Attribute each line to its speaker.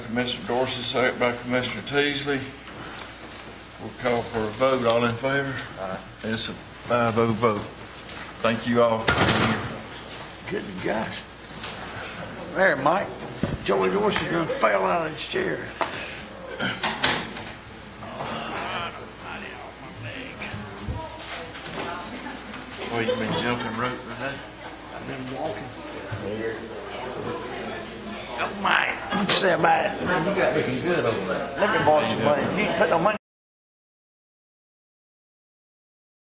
Speaker 1: Commissioner Dorsey, second by Commissioner Teasley. We'll call for a vote. All in favor? Aye. It's a 5-0 vote. Thank you all for being here.
Speaker 2: Good gosh. There, Mike. Joey Dorsey's gonna fail out of his chair.
Speaker 1: Well, you've been jumping rope today.
Speaker 2: I've been walking. Mike. Say about it. You got looking good over there. Look at Boston, man. You ain't put no money